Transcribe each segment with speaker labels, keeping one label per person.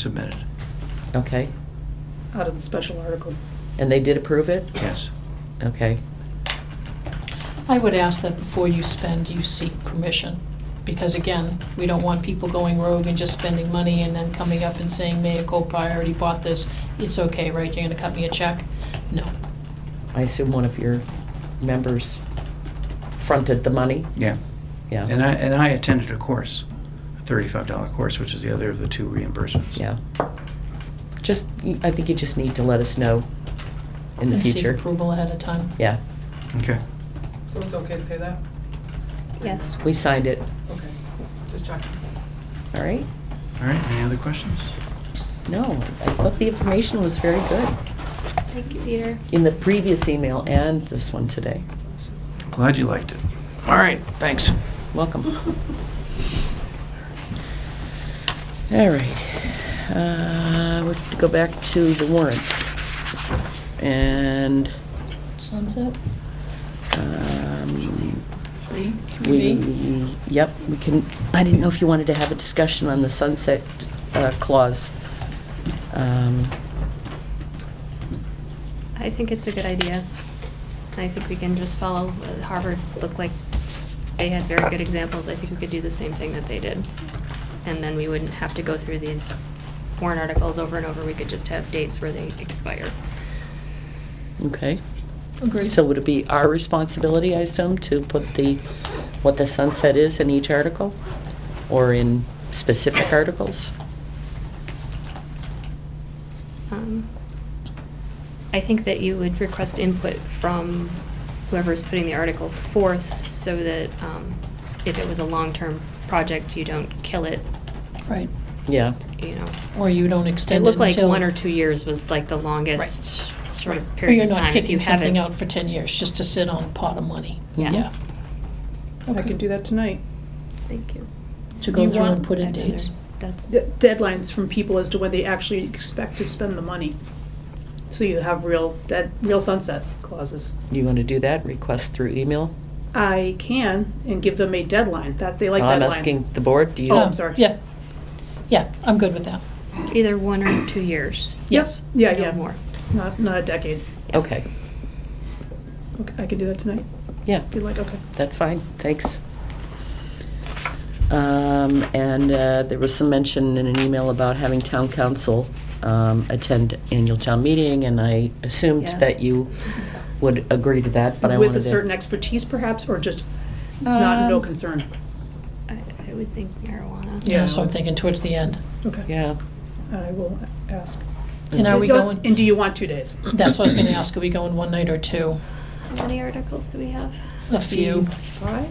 Speaker 1: submitted.
Speaker 2: Okay,
Speaker 3: out of the special article.
Speaker 2: and they did approve it?
Speaker 1: Yes.
Speaker 2: Okay,
Speaker 4: I would ask that before you spend, you seek permission, because again, we don't want people going rogue and just spending money and then coming up and saying, Mayor Copa, I already bought this, it's okay, right, you're gonna cut me a check? No.
Speaker 2: I assume one of your members fronted the money?
Speaker 1: Yeah. And
Speaker 2: Yeah,
Speaker 1: I, and I attended a course, a thirty-five dollar course, which is the other of the two reimbursements.
Speaker 2: yeah. Just, I think you just need to let us know in the
Speaker 4: And seek
Speaker 2: future.
Speaker 4: approval ahead of time.
Speaker 2: Yeah,
Speaker 1: Okay.
Speaker 3: So it's okay to pay that?
Speaker 5: Yes.
Speaker 2: we signed it,
Speaker 3: Okay, just checking.
Speaker 2: all right?
Speaker 1: All right, any other questions?
Speaker 2: No, I thought the information was very good
Speaker 5: Thank you, Peter.
Speaker 2: in the previous email and this one today.
Speaker 1: Glad you liked it. All right, thanks.
Speaker 2: Welcome. All right, uh, we have to go back to the warrant. And,
Speaker 4: Sunset,
Speaker 2: um,
Speaker 4: three, three B?
Speaker 2: we, yep, we can, I didn't know if you wanted to have a discussion on the sunset uh, clause. Um,
Speaker 5: I think it's a good idea. I think we can just follow uh, Harvard looked like they had very good examples. I think we could do the same thing that they did. And then we wouldn't have to go through these warrant articles over and over. We could just have dates where they expire.
Speaker 2: Okay,
Speaker 4: Agreed.
Speaker 2: so would it be our responsibility, I assume, to put the, what the sunset is in each article? Or in specific articles?
Speaker 5: Um, I think that you would request input from whoever's putting the article forth so that um, if it was a long-term project, you don't kill it,
Speaker 4: Right,
Speaker 2: Yeah,
Speaker 5: you know,
Speaker 4: or you don't
Speaker 5: It
Speaker 4: extend it
Speaker 5: looked
Speaker 4: until.
Speaker 5: like one or two years was like the longest sort
Speaker 4: Right.
Speaker 5: of
Speaker 4: Or
Speaker 5: period of
Speaker 4: You're not
Speaker 5: time. If you
Speaker 4: kicking
Speaker 5: have
Speaker 4: something
Speaker 5: it-
Speaker 4: out for ten years, just to sit on a pot of money,
Speaker 5: Yeah.
Speaker 4: yeah.
Speaker 3: I can do that tonight.
Speaker 5: Thank you.
Speaker 4: To go
Speaker 3: You
Speaker 4: through
Speaker 3: want-
Speaker 4: and put in
Speaker 5: I'd rather-
Speaker 4: dates.
Speaker 5: That's,
Speaker 3: D- Deadlines from people as to when they actually expect to spend the money. So you have real, dead, real sunset clauses.
Speaker 2: you want to do that, request through email?
Speaker 3: I can, and give them a deadline, that, they like deadlines.
Speaker 2: I'm asking the board, do you?
Speaker 3: Oh,
Speaker 4: No,
Speaker 3: I'm sorry.
Speaker 4: Yeah, yeah, I'm good with that,
Speaker 5: either one or two years,
Speaker 4: yes.
Speaker 3: Yeah,
Speaker 5: no
Speaker 3: yeah.
Speaker 5: more.
Speaker 3: Not, not a decade.
Speaker 2: Okay,
Speaker 3: Okay, I can do that tonight,
Speaker 2: yeah,
Speaker 3: if you like, okay.
Speaker 2: that's fine, thanks. Um, And uh, there was some mention in an email about having town council um, attend annual town meeting, and I assumed
Speaker 5: Yes.
Speaker 2: that you would agree to that, but I wanted to...
Speaker 3: With a certain expertise perhaps, or just not, no
Speaker 4: Um,
Speaker 3: concern?
Speaker 5: I, I would think marijuana.
Speaker 4: Yeah, so I'm thinking towards the end.
Speaker 3: Okay,
Speaker 2: Yeah,
Speaker 3: I will ask.
Speaker 4: And are we
Speaker 3: No,
Speaker 4: going,
Speaker 3: And do you want two days?
Speaker 4: that's what I was gonna ask, are we going one night or two?
Speaker 5: How many articles do we have?
Speaker 4: A few.
Speaker 3: Five?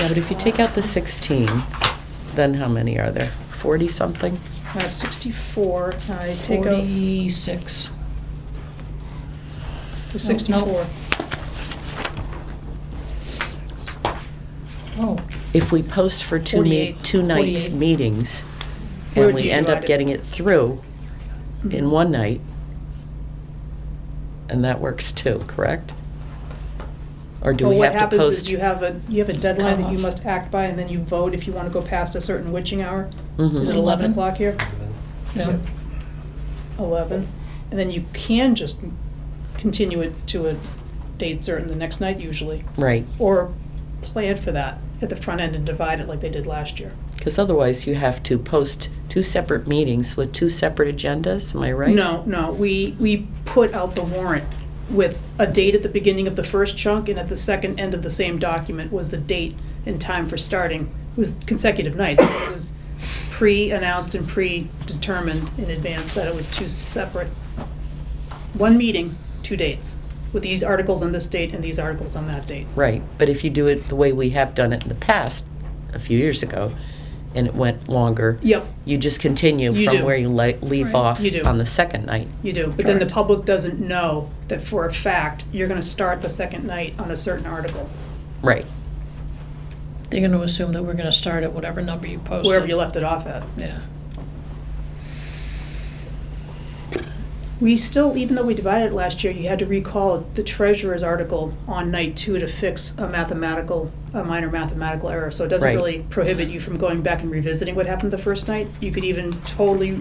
Speaker 2: yeah, but if you take out the 16, then how many are there? 40-something?
Speaker 3: I have 64, Uh, I take out
Speaker 4: Forty-six.
Speaker 3: the 64.
Speaker 4: Oh,
Speaker 2: If we post for two, me-
Speaker 3: 48.
Speaker 2: two nights
Speaker 4: 48.
Speaker 2: meetings,
Speaker 3: Where
Speaker 2: and
Speaker 3: do
Speaker 2: we
Speaker 3: you
Speaker 2: end
Speaker 3: divide
Speaker 2: up
Speaker 3: it?
Speaker 2: getting it through, in
Speaker 3: Mhm.
Speaker 2: one night, and that works too, correct? Or do
Speaker 3: Well,
Speaker 2: we have to
Speaker 3: What happens is
Speaker 2: post?
Speaker 3: you have a, you have a deadline that you
Speaker 4: Cutoff.
Speaker 3: must act by, and then you vote if you want to go past a certain witching hour.
Speaker 2: Mhm.
Speaker 4: Is it 11?
Speaker 3: o'clock here?
Speaker 4: no,
Speaker 3: 11. And then you can just continue it to a date certain the next night usually,
Speaker 2: Right,
Speaker 3: or plan for that at the front end and divide it like they did last year.
Speaker 2: because otherwise you have to post two separate meetings with two separate agendas, am I right?
Speaker 3: No, no, we, we put out the warrant with a date at the beginning of the first chunk and at the second end of the same document was the date and time for starting. It was consecutive nights. It was pre-announced and predetermined in advance that it was two separate, one meeting, two dates, with these articles on this date and these articles on that date.
Speaker 2: Right, but if you do it the way we have done it in the past, a few years ago, and it went longer,
Speaker 3: Yep,
Speaker 2: you just continue
Speaker 3: You
Speaker 2: from
Speaker 3: do.
Speaker 2: where you li- leave
Speaker 4: Right.
Speaker 2: off
Speaker 3: You do.
Speaker 2: on the second night.
Speaker 3: you do, but then the
Speaker 2: Correct.
Speaker 3: public doesn't know that for a fact, you're gonna start the second night on a certain article,
Speaker 2: Right,
Speaker 4: they're gonna assume that we're gonna start at whatever number you posted.
Speaker 3: wherever you left it off at.
Speaker 4: Yeah,
Speaker 3: We still, even though we divided it last year, you had to recall the treasurer's article on night two to fix a mathematical a minor mathematical error, so it doesn't
Speaker 2: Right.
Speaker 3: really prohibit you from going back and revisiting what happened the first night. You could even totally